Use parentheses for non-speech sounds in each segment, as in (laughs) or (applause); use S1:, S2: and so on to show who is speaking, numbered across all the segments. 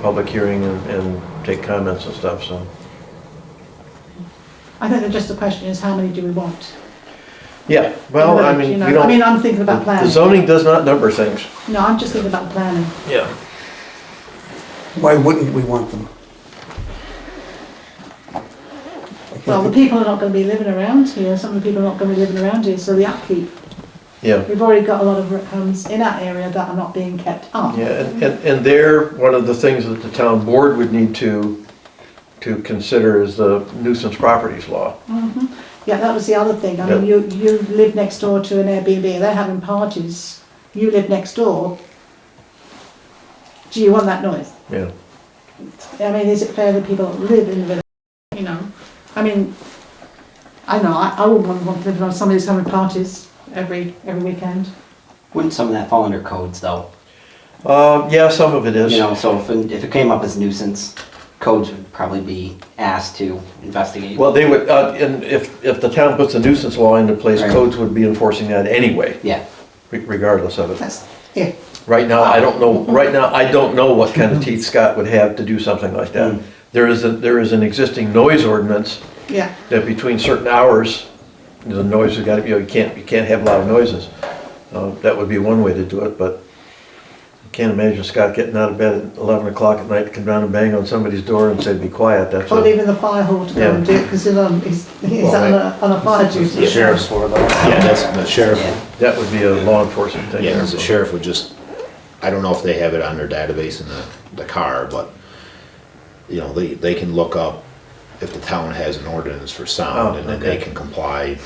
S1: public hearing and- and take comments and stuff, so.
S2: I think that just the question is how many do we want?
S1: Yeah, well, I
S2: You
S1: mean,
S2: know,
S1: we
S2: I mean,
S1: don't,
S2: I'm thinking about
S1: the
S2: planning.
S1: zoning does not number things.
S2: No, I'm just thinking about planning.
S1: Yeah.
S3: Why wouldn't we want them? I can't
S2: Well, the
S3: think-
S2: people are not going to be living around here. Some of the people are not going to be living around here, so the upkeep.
S1: Yeah,
S2: We've already got a lot of homes in that area that are not being kept up.
S1: yeah, and, and- and there, one of the things that the town board would need to, to consider is the nuisance properties law.
S2: Mhm. Yeah, that was the other thing. I mean, you, you live next door to an Airbnb, they're having parties. You live next door. Do you want that noise?
S1: Yeah,
S2: I mean, is it fair that people live in the village? You know, I mean, I know, I, I wouldn't want, want to live on somebody's having parties every, every weekend.
S4: Wouldn't some of that fall under codes though?
S1: uh, yeah, some of it is.
S4: You know, so if, if it came up as nuisance, codes would probably be asked to investigate.
S1: Well, they would, uh, and if, if the town puts a nuisance law into place,
S4: Right.
S1: codes would be enforcing that anyway,
S4: Yeah,
S1: re- regardless of it.
S2: That's, yeah,
S1: Right now, I don't know, right now, I don't know what kind of teeth Scott would have to do something like that.
S4: Mm.
S1: There is, a there is an existing noise ordinance
S2: yeah.
S1: that between certain hours, the noise has got to be, you can't, you can't have loud noises. Uh, That would be one way to do it, but I can't imagine Scott getting out of bed at 11 o'clock at night, to come down and bang on somebody's door and say, be quiet, that's
S2: Or
S1: a...
S2: leaving the fire hall to go and do it, because he's on, he's, he's on a, on a fire duty.
S5: The sheriff's for though. Yeah, that's, the sheriff,
S4: yeah.
S1: That would be a law enforcement thing.
S5: yeah, 'cause the sheriff would just, I don't know if they have it on their database in the, the car, but, you know, they, they can look up if the town has an ordinance for sound,
S1: Oh,
S5: and then they
S1: okay.
S5: can comply.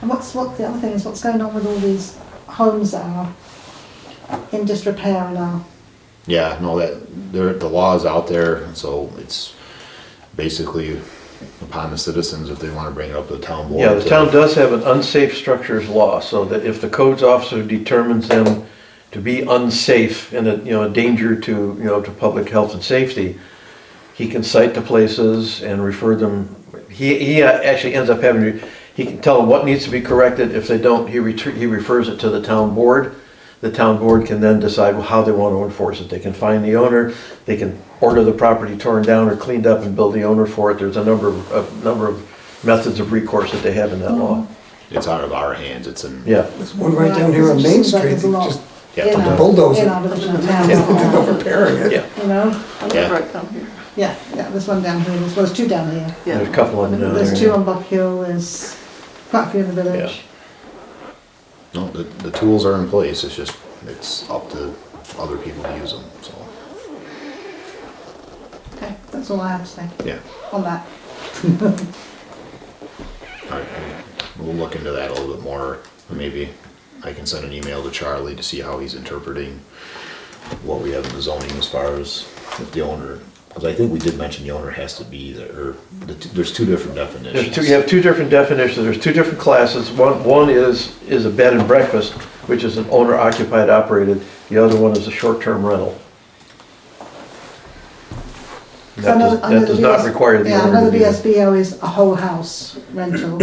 S2: And what's, what, the other thing is, what's going on with all these homes that are in disrepair and are,
S5: Yeah, no, that, there, the law is out there, and so it's basically upon the citizens if they wanna bring it up to the town board.
S1: Yeah, the
S5: to-
S1: town does have an unsafe structures law, so that if the codes officer determines them to be unsafe and a, you know, a danger to, you know, to public health and safety, he can cite the places and refer them, he, he uh, actually ends up having, to- he can tell them what needs to be corrected, if they don't, he retur he refers it to the town board. The town board can then decide how they want to enforce it, they can find the owner, they can order the property torn down or cleaned up and bill the owner for it, there's a number of, a number of methods of recourse that they have in that law,
S2: Mm-hmm.
S5: It's out of our hands, it's in.
S1: yeah.
S3: There's one right down here on
S2: Right,
S3: Main
S2: it's just like
S3: Street,
S2: there's a
S3: that
S2: lot.
S3: just, (laughs)
S5: Yeah,
S2: in
S5: the
S2: our-
S3: bulldozer.
S2: In our village and
S5: (laughs)
S3: they're not
S2: town,
S3: repairing it.
S1: Yeah.
S2: you know?
S5: Yeah.
S6: Right down here.
S2: Yeah, yeah, there's one down here, there's, well, there's two down here.
S6: Yeah.
S1: There's a couple of them down there.
S2: There's two on Bob Hill, there's quite a few in the
S1: Yeah.
S2: village.
S5: No, the, the tools are in place, it's just, it's up to other people to use them, so,
S2: Okay, that's all I have to say
S5: yeah.
S2: on that.
S5: All right, we'll- we'll look into that a little bit more. Maybe I can send an email to Charlie to see how he's interpreting what we have in the zoning as far as if the owner, because I think we did mention the owner has to be there, or the t- there's two different
S1: There's
S5: definitions.
S1: two, you have two different definitions, there's two different classes, one, one is, is a bed and breakfast, which is an owner occupied operated, the other one is a short-term rental. And
S2: So I
S1: That
S2: know-
S1: does,
S2: I know
S1: that does not
S2: VS
S1: require the
S2: Yeah, I know
S1: owner to
S2: the
S1: be there.
S2: VSBO is a whole house rental,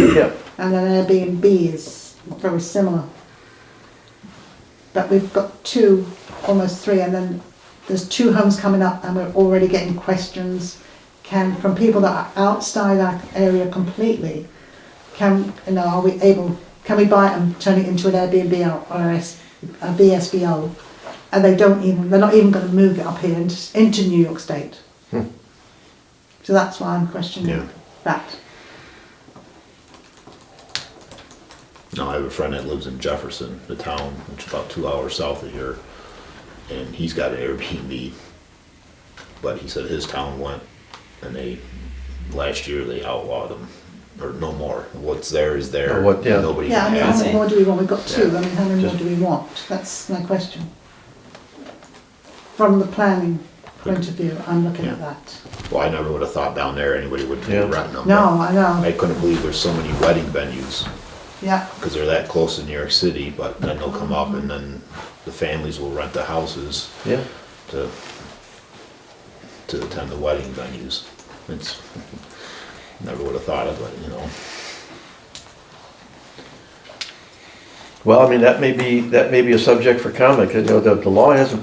S1: (coughs) Yeah,
S2: and then Airbnb is very similar. But we've got two, almost three, and then there's two homes coming up, and we're already getting questions can, from people that are outside our area completely. Can, you know, are we able, can we buy it and turn it into an Airbnb or- or a S- a VSBO? And they don't even, they're not even gonna move it up here into, into New York State. So that's why I'm
S5: Yeah.
S2: questioning that.
S5: No, I have a friend that lives in Jefferson, the town, which is about two hours south of here, and he's got an Airbnb. But he said his town went, and they, last year, they outlawed them, or no more. What's there is there.
S1: Or what- yeah.
S5: Nobody
S2: Yeah, I
S5: can
S2: mean, how
S5: have
S2: many
S5: it.
S2: more do we want? We've got two, I mean, how many more
S1: Just-
S2: do we want? That's my question. From the planning point of view, I'm looking at
S5: Yeah.
S2: that.
S5: Well, I never would have thought down there anybody would be
S1: Yeah.
S5: renting them.
S2: No,
S5: but
S2: I
S5: I
S2: know,
S5: couldn't believe there's so many wedding venues,
S2: yeah,
S5: because they're that close to New York City, but then they'll come up and then the families will rent the houses
S1: yeah,
S5: to, to attend the wedding venues. It's, (laughs) never would have thought of it, you know.
S1: Well, I mean, that may be, that may be a subject for comment, 'cause, you know, the, the law hasn't